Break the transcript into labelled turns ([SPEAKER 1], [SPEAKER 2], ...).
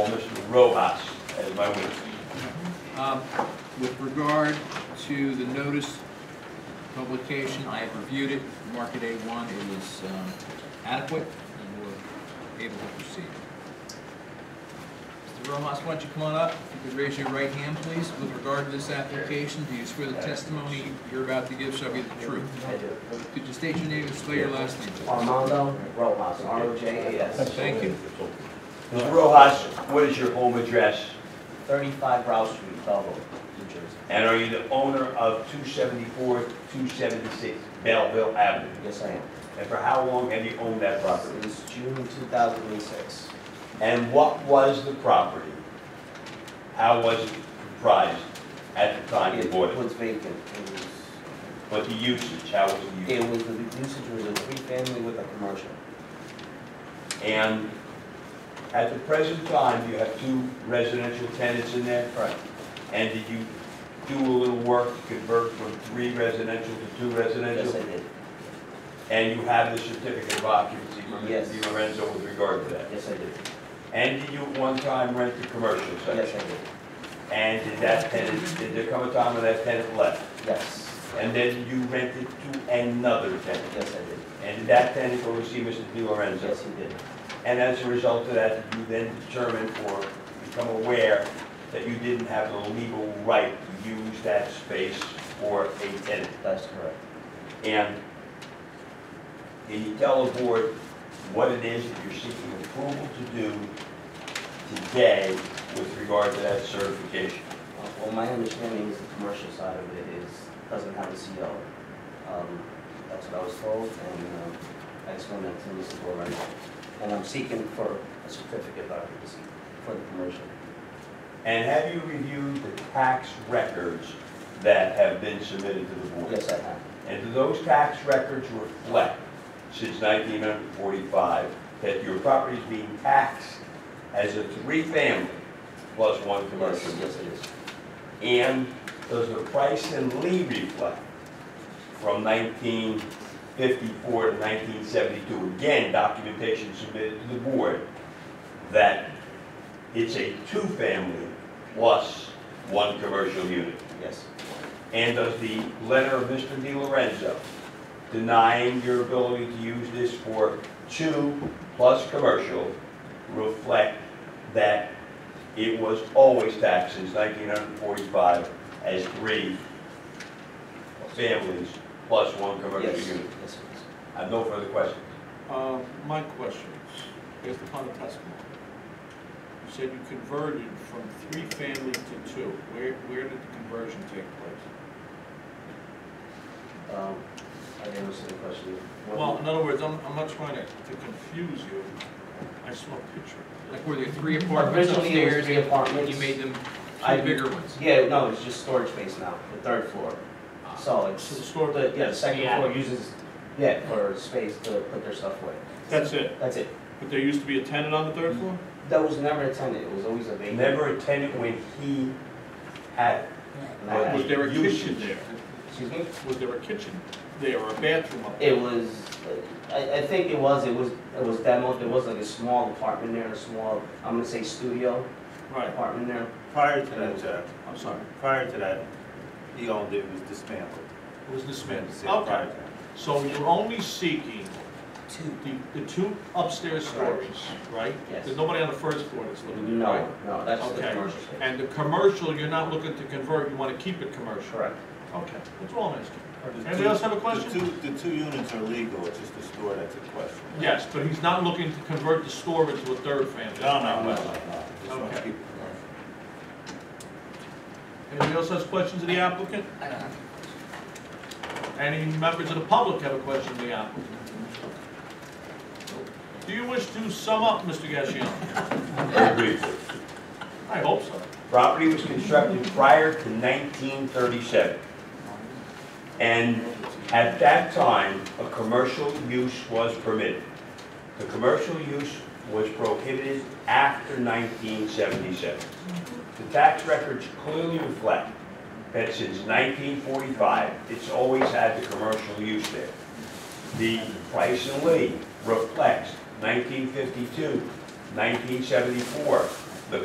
[SPEAKER 1] robots as my witness.
[SPEAKER 2] Um, With regard to the notice publication, I have reviewed it, mark it A1, it was um, adequate, and we're able to proceed. Mr. Rojas, why don't you come on up, if you could raise your right hand, please, with regard to this application, do you swear the testimony you're about to give shall be the truth?
[SPEAKER 3] I do.
[SPEAKER 2] Could you state your name and spell your last name? please?
[SPEAKER 3] Armando Rojas, R-O-J-A-S,
[SPEAKER 2] Thank you.
[SPEAKER 1] Mr. Rojas, what is your home address?
[SPEAKER 3] 35 Rouse Street, Belleville, New Jersey.
[SPEAKER 1] And are you the owner of 274, 276 Belleville Avenue?
[SPEAKER 3] Yes, I am.
[SPEAKER 1] And for how long have you owned that property?
[SPEAKER 3] Since June 2006.
[SPEAKER 1] And what was the property? How was it comprised at the time you
[SPEAKER 3] It
[SPEAKER 1] bought it?
[SPEAKER 3] was vacant. It was-
[SPEAKER 1] But the usage, how was the usage?
[SPEAKER 3] It was, the usage was a three-family with a commercial.
[SPEAKER 1] And at the present time, you have two residential tenants in there?
[SPEAKER 3] Correct.
[SPEAKER 1] And did you do a little work to convert from three residential to two
[SPEAKER 3] Yes, I
[SPEAKER 1] residential?
[SPEAKER 3] did.
[SPEAKER 1] And you have the certificate of occupancy from
[SPEAKER 3] Yes.
[SPEAKER 1] Mr. Di Lorenzo with regard to that?
[SPEAKER 3] Yes, I did.
[SPEAKER 1] And did you at one time rent the commercial
[SPEAKER 3] Yes,
[SPEAKER 1] section?
[SPEAKER 3] I did.
[SPEAKER 1] And did that tenant, did there come a time when that tenant left?
[SPEAKER 3] Yes.
[SPEAKER 1] And then you rented to another tenant?
[SPEAKER 3] Yes, I did.
[SPEAKER 1] And did that tenant go to see Mr. Di Lorenzo?
[SPEAKER 3] Yes, he did.
[SPEAKER 1] And as a result of that, you then determined or become aware that you didn't have the legal right to use that space for a tenant.
[SPEAKER 3] That's correct.
[SPEAKER 1] And can you tell the board what it is that you're seeking approval to do today with regard to that certification?
[SPEAKER 3] Uh, Well, my understanding is the commercial side of it is, doesn't have a CO. Um, That's what I was told, and um, I explained that to Mr. Borrego. And I'm seeking for a certificate of occupancy for the commercial.
[SPEAKER 1] And have you reviewed the tax records that have been submitted to the board?
[SPEAKER 3] Yes, I have.
[SPEAKER 1] And do those tax records reflect, since 1945, that your property is being taxed as a three-family plus one commercial?
[SPEAKER 3] Yes, yes, it is.
[SPEAKER 1] And does the price and Lee reflect from 1954 to 1972? Again, documentation submitted to the board that it's a two-family plus one commercial unit.
[SPEAKER 3] Yes,
[SPEAKER 1] And does the letter of Mr. Di Lorenzo denying your ability to use this for two plus commercial reflect that it was always taxed since 1945 as three families plus one commercial
[SPEAKER 3] yes, yes,
[SPEAKER 1] unit?
[SPEAKER 3] it is.
[SPEAKER 1] I have no further questions.
[SPEAKER 4] Uh, My question, based upon the testimony, you said you converted from three family to two. Where, where did the conversion take place?
[SPEAKER 3] Um, I didn't understand the question. What-
[SPEAKER 4] Well, in other words, I'm, I'm not trying to to confuse you. I saw a picture.
[SPEAKER 2] Like, were there three apartments
[SPEAKER 3] Originally, it was
[SPEAKER 2] upstairs,
[SPEAKER 3] three
[SPEAKER 2] and
[SPEAKER 3] apartments.
[SPEAKER 2] you made them
[SPEAKER 3] I-
[SPEAKER 2] two bigger ones?
[SPEAKER 3] Yeah, no, it's just storage space now, the third floor. So
[SPEAKER 4] So
[SPEAKER 3] it's,
[SPEAKER 4] the store,
[SPEAKER 3] the- yeah, the second
[SPEAKER 4] Yeah.
[SPEAKER 3] floor uses, yeah, for space to put their stuff away.
[SPEAKER 4] that's it.
[SPEAKER 3] That's it.
[SPEAKER 4] But there used to be a tenant on the third floor?
[SPEAKER 3] That was never a tenant, it was always a vacant.
[SPEAKER 1] Never a tenant when he had,
[SPEAKER 3] Uh,
[SPEAKER 4] Was there a kitchen there?
[SPEAKER 3] Excuse me?
[SPEAKER 4] Was there a kitchen there or a bathroom up there?
[SPEAKER 3] It was, uh, I, I think it was, it was, it was demoed, there was like a small apartment there, a small, I'm gonna say studio
[SPEAKER 4] Right,
[SPEAKER 3] apartment there.
[SPEAKER 5] Prior to that, Jack,
[SPEAKER 4] I'm sorry.
[SPEAKER 5] prior to that, he owned it, it was dismantled.
[SPEAKER 4] It was
[SPEAKER 5] Prior to
[SPEAKER 4] dismantled. Okay.
[SPEAKER 5] that.
[SPEAKER 4] So you're only seeking
[SPEAKER 3] Two.
[SPEAKER 4] the, the two upstairs stories, right?
[SPEAKER 3] Yes.
[SPEAKER 4] There's nobody on the first floor that's living there, right?
[SPEAKER 3] No, no, that's the
[SPEAKER 4] Okay.
[SPEAKER 3] commercial space.
[SPEAKER 4] And the commercial, you're not looking to convert, you want to keep it commercial?
[SPEAKER 3] Correct.
[SPEAKER 4] Okay, that's all I'm asking.
[SPEAKER 5] The
[SPEAKER 4] Anybody
[SPEAKER 5] two-
[SPEAKER 4] else have a question?
[SPEAKER 5] The two, the two units are legal, it's just the store that's a question.
[SPEAKER 4] Yes, but he's not looking to convert the store into a third family.
[SPEAKER 5] No, no, no, no, no. Just wanna
[SPEAKER 4] Okay.
[SPEAKER 5] keep it commercial.
[SPEAKER 4] Anybody else has questions of the applicant? Any members of the public have a question of the applicant? Do you wish to sum up, Mr. Gassion?
[SPEAKER 1] very briefly,
[SPEAKER 4] I hope so.
[SPEAKER 1] Property was constructed prior to 1937. And at that time, a commercial use was permitted. The commercial use was prohibited after 1977. The tax records clearly reflect that since 1945, it's always had the commercial use there. The price and Lee reflects 1952, 1974,